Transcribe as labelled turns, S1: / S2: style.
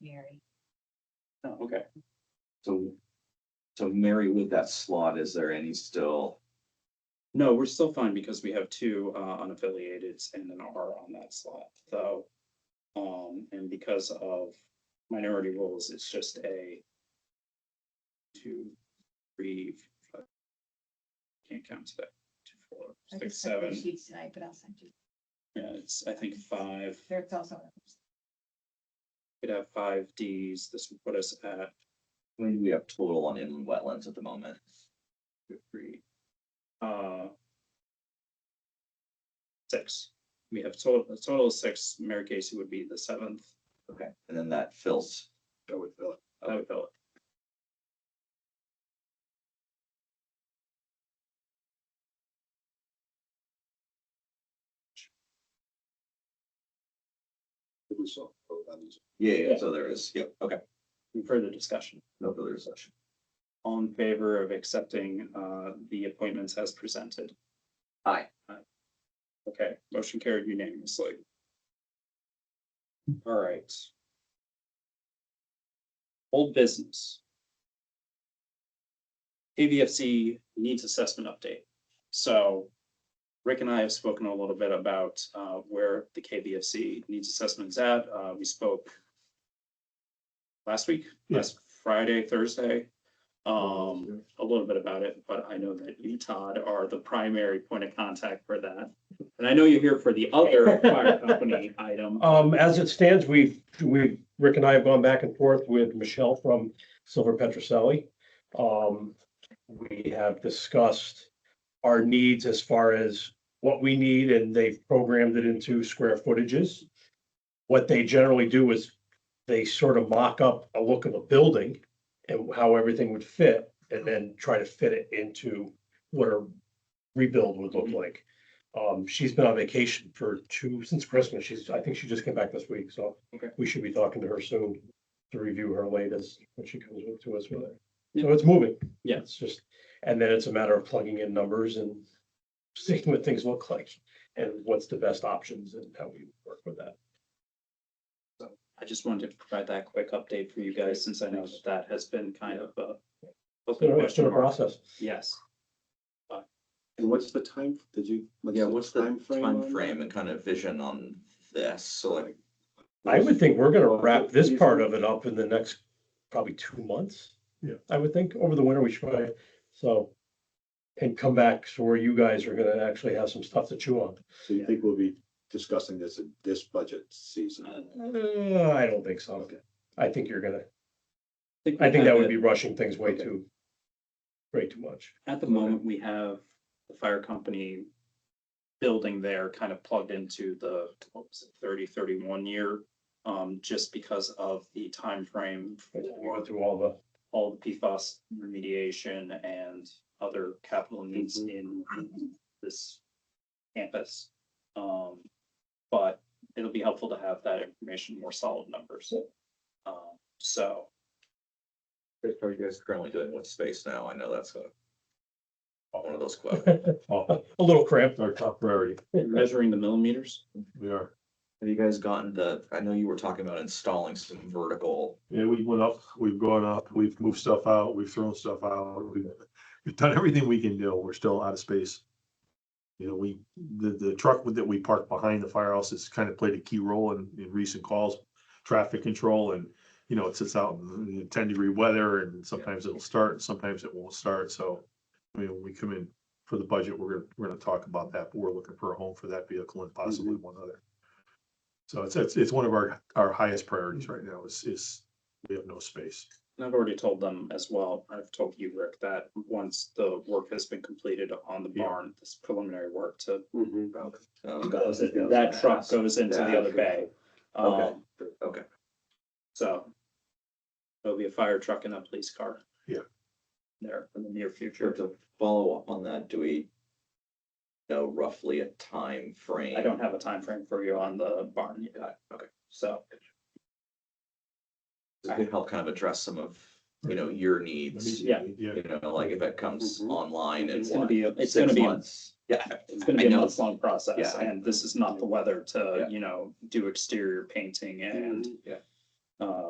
S1: Mary.
S2: Oh, okay.
S3: So, so Mary with that slot, is there any still?
S2: No, we're still fine because we have two uh, unaffiliated and an R on that slot, so. Um, and because of minority rules, it's just a two, three, five. Can't count today. Two, four,
S1: I
S2: six,
S1: just sent the
S2: seven.
S1: Sheets tonight, but I'll send you.
S2: Yeah, it's, I think, five,
S1: There's also.
S2: could have five Ds. This would put us at
S3: I mean, we have total on inland wetlands at the moment.
S2: two, three. Uh. Six. We have total, a total of six. Mary Casey would be the seventh.
S3: Okay. And then that fills.
S2: That would fill it. That would fill it.
S4: We saw, oh, that is-
S3: Yeah, yeah, so there is, yep, okay,
S2: Any Further discussion.
S3: no further discussion.
S2: All in favor of accepting uh the appointments as presented?
S3: Aye.
S2: Aye. Okay, motion carried unanimously. All right. Old business. AVFC needs assessment update. So Rick and I have spoken a little bit about uh where the KVFC needs assessment is at. Uh, we spoke last week, last Friday, Thursday. Um, a little bit about it, but I know that you, Todd, are the primary point of contact for that. And I know you're here for the other fire company item.
S5: Um, as it stands, we've, we, Rick and I have gone back and forth with Michelle from Silver Petroselli. Um, we have discussed our needs as far as what we need and they've programmed it into square footages. What they generally do is they sort of mock up a look of a building and how everything would fit and then try to fit it into what a rebuild would look like. Um, she's been on vacation for two, since Christmas. She's, I think she just came back this week, so.
S2: Okay.
S5: We should be talking to her soon to review her latest when she comes up to us with it. So it's moving.
S2: Yeah.
S5: It's just, and then it's a matter of plugging in numbers and seeing what things look like and what's the best options and how we work with that.
S2: I just wanted to provide that quick update for you guys, since I know that that has been kind of a.
S5: It's been a- It's been a
S2: question mark.
S5: process.
S2: Yes,
S4: And what's the time, did you?
S3: Yeah, what's the
S4: timeframe on that?
S3: timeframe and kind of vision on this? So like,
S5: I would think we're gonna
S4: Well,
S5: wrap this
S4: these
S5: part
S4: are-
S5: of it up in the next probably two months. Yeah. I would think over the winter we should, probably- so. And come back so where you guys are gonna actually have some stuff to chew on.
S4: So you think we'll be discussing this in this budget season?
S5: Uh, I don't think so.
S4: Okay.
S5: I think you're gonna,
S2: think
S5: I
S2: we
S5: think that
S2: have
S5: would
S2: it-
S5: be rushing things way
S4: Okay.
S5: too. Way too much.
S2: At the moment, we have the fire company building there kind of plugged into the what was it, 30, 31 year. Um, just because of the time frame
S5: We
S2: for
S5: went through all the,
S2: all the PFAS remediation and other capital needs in this campus. Um, but it'll be helpful to have that information, more solid numbers. Um, so
S3: are you guys currently doing what space now? I know that's a. One of those questions.
S5: a little cramped.
S6: our top priority.
S2: measuring the millimeters,
S6: We are,
S3: Have you guys gotten the, I know you were talking about installing some vertical,
S6: yeah, we went up, we've gone up, we've moved stuff out, we've thrown stuff out, we've, we've done everything we can do, we're still out of space. You know, we, the, the truck that we parked behind the firehouse has kind of played a key role in, in recent calls, traffic control and, you know, it sits out in ten degree weather and sometimes it'll start, and sometimes it won't start, so. I mean, when we come in for the budget, we're gonna, we're gonna talk about that, but we're looking for a home for that vehicle and possibly one other. So it's, it's, it's one of our, our highest priorities right now is, is we have no space.
S2: and I've already told them as well, I've told you, Rick, that once the work has been completed on the
S6: Yeah.
S2: barn, this preliminary work to.
S4: Mhm.
S3: um,
S2: goes- That truck goes into the other bay.
S3: Okay.
S2: Um,
S3: Okay.
S2: So. There'll be a fire truck and a police car.
S6: Yeah.
S2: There in the near
S3: Sure,
S2: future.
S3: to follow up on that, do we know roughly a time frame?
S2: I don't have a time frame for you on the barn yet,
S3: Got it, Okay,
S2: so.
S3: so it could help kind of address some of, you know, your needs,
S2: Yeah. Mm-hmm.
S6: Yeah,
S3: you know, like if it comes
S4: Mhm.
S3: online and
S2: It's gonna
S3: what,
S2: be, a- it's
S3: six
S2: gonna be, a-
S3: months? Yeah,
S2: it's gonna
S3: I
S2: be a
S3: know.
S2: month long process
S3: Yeah, I-
S2: and this is not the weather to,
S3: Yeah.
S2: you know, do exterior painting and.
S3: Yeah.
S2: Uh,